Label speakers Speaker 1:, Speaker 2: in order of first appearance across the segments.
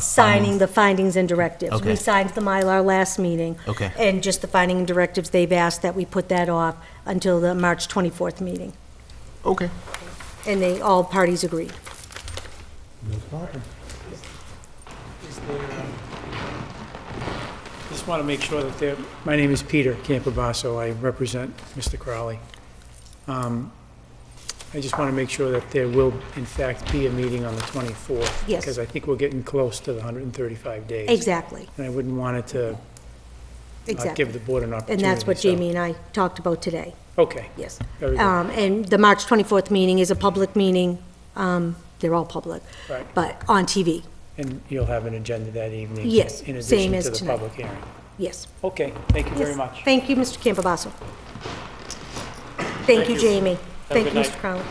Speaker 1: signing the findings and directives.
Speaker 2: Okay.
Speaker 1: We signed the Mylar last meeting.
Speaker 2: Okay.
Speaker 1: And just the finding and directives, they've asked that we put that off until the March 24th meeting,
Speaker 2: Okay.
Speaker 1: and they, all parties agreed.
Speaker 3: Is there, um, Just want to make sure that they're, my name is Peter Campobasso, I represent Mr. Crowley. Um, I just want to make sure that there will, in fact, be a meeting on the 24th.
Speaker 1: Yes.
Speaker 3: Because I think we're getting close to the 135 days.
Speaker 1: Exactly,
Speaker 3: And I wouldn't want it to not give the
Speaker 1: exactly.
Speaker 3: board an opportunity.
Speaker 1: And that's what
Speaker 3: so-
Speaker 1: Jamie and I talked about today,
Speaker 3: Okay,
Speaker 1: yes.
Speaker 3: very good.
Speaker 1: Um, And the March 24th meeting is a public meeting, um, they're all public,
Speaker 3: Right.
Speaker 1: but on TV,
Speaker 3: And you'll have an agenda that evening?
Speaker 1: Yes,
Speaker 3: In
Speaker 1: same
Speaker 3: addition
Speaker 1: as
Speaker 3: to the
Speaker 1: tonight.
Speaker 3: public hearing?
Speaker 1: yes.
Speaker 3: Okay, thank you very
Speaker 1: Yes.
Speaker 3: much.
Speaker 1: Thank you, Mr. Campobasso. Thank you, Jamie. Thank
Speaker 3: good
Speaker 1: you,
Speaker 3: night.
Speaker 1: Mr. Crowley.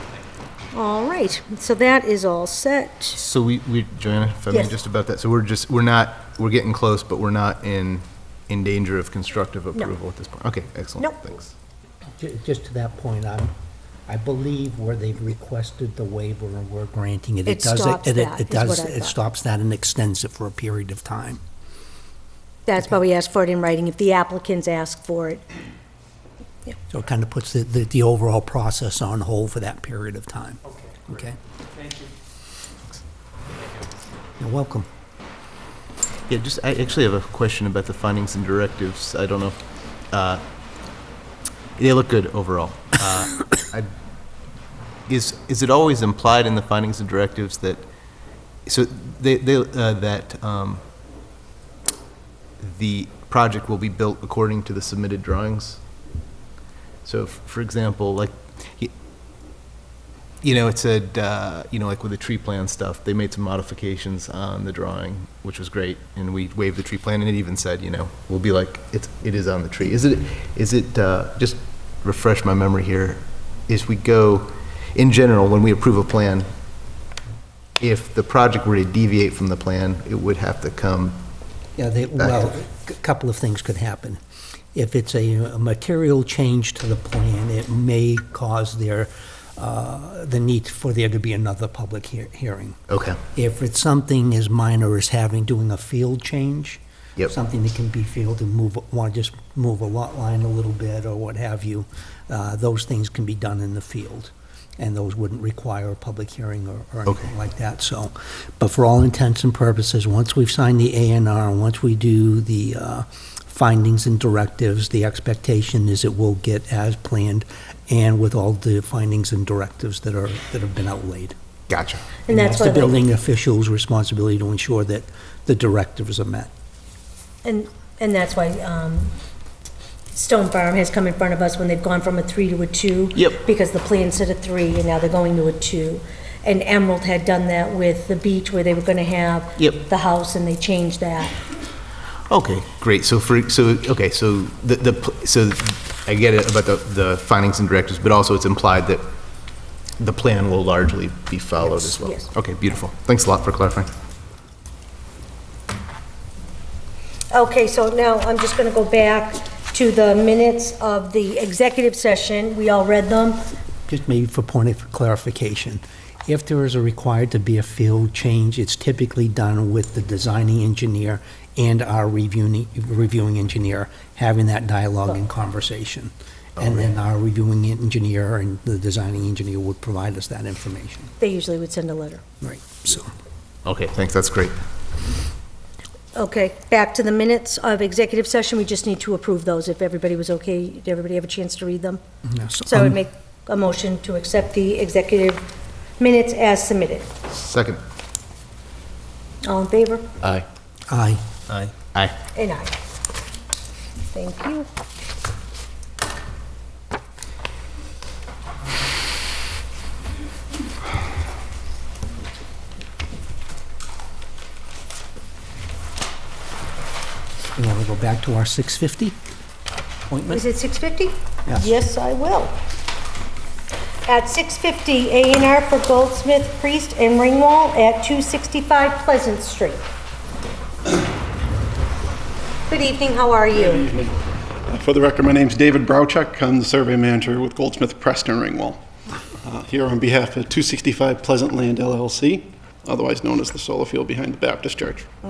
Speaker 1: All right, so that is all set.
Speaker 2: So we, we, Joanna, if I may,
Speaker 1: Yes.
Speaker 2: just about that, so we're just, we're not, we're getting close, but we're not in, in danger of constructive approval at this point? Okay, excellent,
Speaker 1: Nope.
Speaker 2: thanks.
Speaker 4: Ju- Just to that point, I'm, I believe where they've requested the waiver and we're granting it.
Speaker 1: It
Speaker 4: does
Speaker 1: stops
Speaker 4: it-
Speaker 1: that, is
Speaker 4: It does,
Speaker 1: what I
Speaker 4: it
Speaker 1: thought.
Speaker 4: stops that and extends it for a period of time.
Speaker 1: That's why we asked for it in writing, if the applicants ask for it.
Speaker 4: So it kind of puts the, the the overall process on hold for that period of time. Okay. Okay?
Speaker 3: Thank you.
Speaker 4: You're welcome.
Speaker 2: Yeah, just, I actually have a question about the findings and directives. I don't know, if, uh, they look good overall. Uh, I- Is, is it always implied in the findings and directives that, so they, they, uh, that um, the project will be built according to the submitted drawings? So, f- for example, like, y- you know, it said, uh, you know, like with the tree plan stuff, they made some modifications on the drawing, which was great, and we waived the tree plan, and it even said, you know, we'll be like, it's, it is on the tree. Is it, is it, uh, just refresh my memory here, is we go, in general, when we approve a plan, if the project were to deviate from the plan, it would have to come,
Speaker 4: Yeah, they, well, a couple of things could happen. If it's a a material change to the plan, it may cause their, uh, the need for there to be another public hea- hearing.
Speaker 2: okay,
Speaker 4: If it's something as minor as having, doing a field change.
Speaker 2: Yep.
Speaker 4: Something that can be fielded, and move, want to just move a lot line a little bit or what have you, uh, those things can be done in the field. And those wouldn't require a public hearing or, or
Speaker 2: Okay.
Speaker 4: anything like that, so. But for all intents and purposes, once we've signed the A and R, once we do the, uh, findings and directives, the expectation is it will get as planned and with all the findings and directives that are, that have been outlaid.
Speaker 2: gotcha.
Speaker 1: And that's
Speaker 4: The
Speaker 1: why, they-
Speaker 4: building official's responsibility to ensure that the directives are met.
Speaker 1: and, and that's why um, Stone Farm has come in front of us when they've gone from a three to a two.
Speaker 2: Yep.
Speaker 1: Because the plan said a three, and now they're going to a two. And Emerald had done that with the beach where they were going to have
Speaker 2: Yep.
Speaker 1: the house, and they changed that.
Speaker 2: Okay, great. So for, so, okay, so the, the, pl- so I get it about the, the findings and directives, but also it's implied that the plan will largely be followed as well.
Speaker 1: Yes, yes.
Speaker 2: Okay, beautiful. Thanks a lot for clarifying.
Speaker 1: Okay, so now I'm just going to go back to the minutes of the executive session. We all read them.
Speaker 4: Just maybe for point of clarification, if there is a required to be a field change, it's typically done with the designing engineer and our reviewing, reviewing engineer having that dialogue and conversation. And then our reviewing engineer and the designing engineer would provide us that information.
Speaker 1: They usually would send a letter.
Speaker 4: Right. So,
Speaker 2: Okay, thanks, that's great.
Speaker 1: Okay, back to the minutes of executive session. We just need to approve those. If everybody was okay, did everybody have a chance to read them?
Speaker 4: yeah, so
Speaker 1: So I
Speaker 4: I'm-
Speaker 1: would make a motion to accept the executive minutes as submitted.
Speaker 2: Second.
Speaker 1: All in favor?
Speaker 2: Aye.
Speaker 4: Aye.
Speaker 2: Aye. Aye.
Speaker 1: And aye. Thank you.
Speaker 4: You want to go back to our 650 appointment?
Speaker 1: Is it 6:50?
Speaker 4: Yes.
Speaker 1: I will. At 6:50, A and R for Goldsmith, Priest, and Ringwall at 265 Pleasant Street. Good evening, how are you?
Speaker 5: For the record, my name's David Browchuk. I'm the survey manager with Goldsmith Preston Ringwall. Uh, Here on behalf of 265 Pleasant Land LLC, otherwise known as the solar field behind the Baptist Church.